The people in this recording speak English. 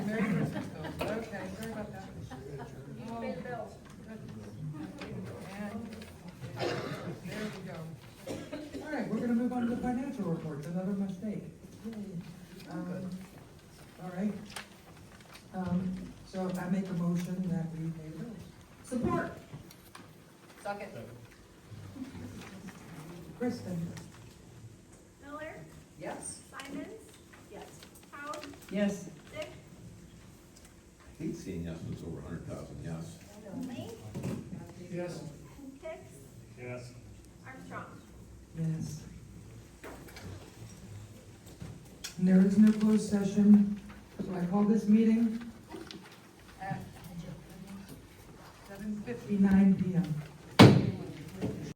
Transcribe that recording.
was another mistake. Yay. Um, All right. Um, So I make a motion that we pay the bills. Support. Second. Kristen? Miller, Yes. Simons? Yes. Howard, Yes. Dick, I hate seeing yes when it's over a hundred thousand, yes. Lee, Yes. Hicks, Yes. Armstrong. Yes. And There is no closed session, so I call this meeting Uh, seven fifty-nine PM.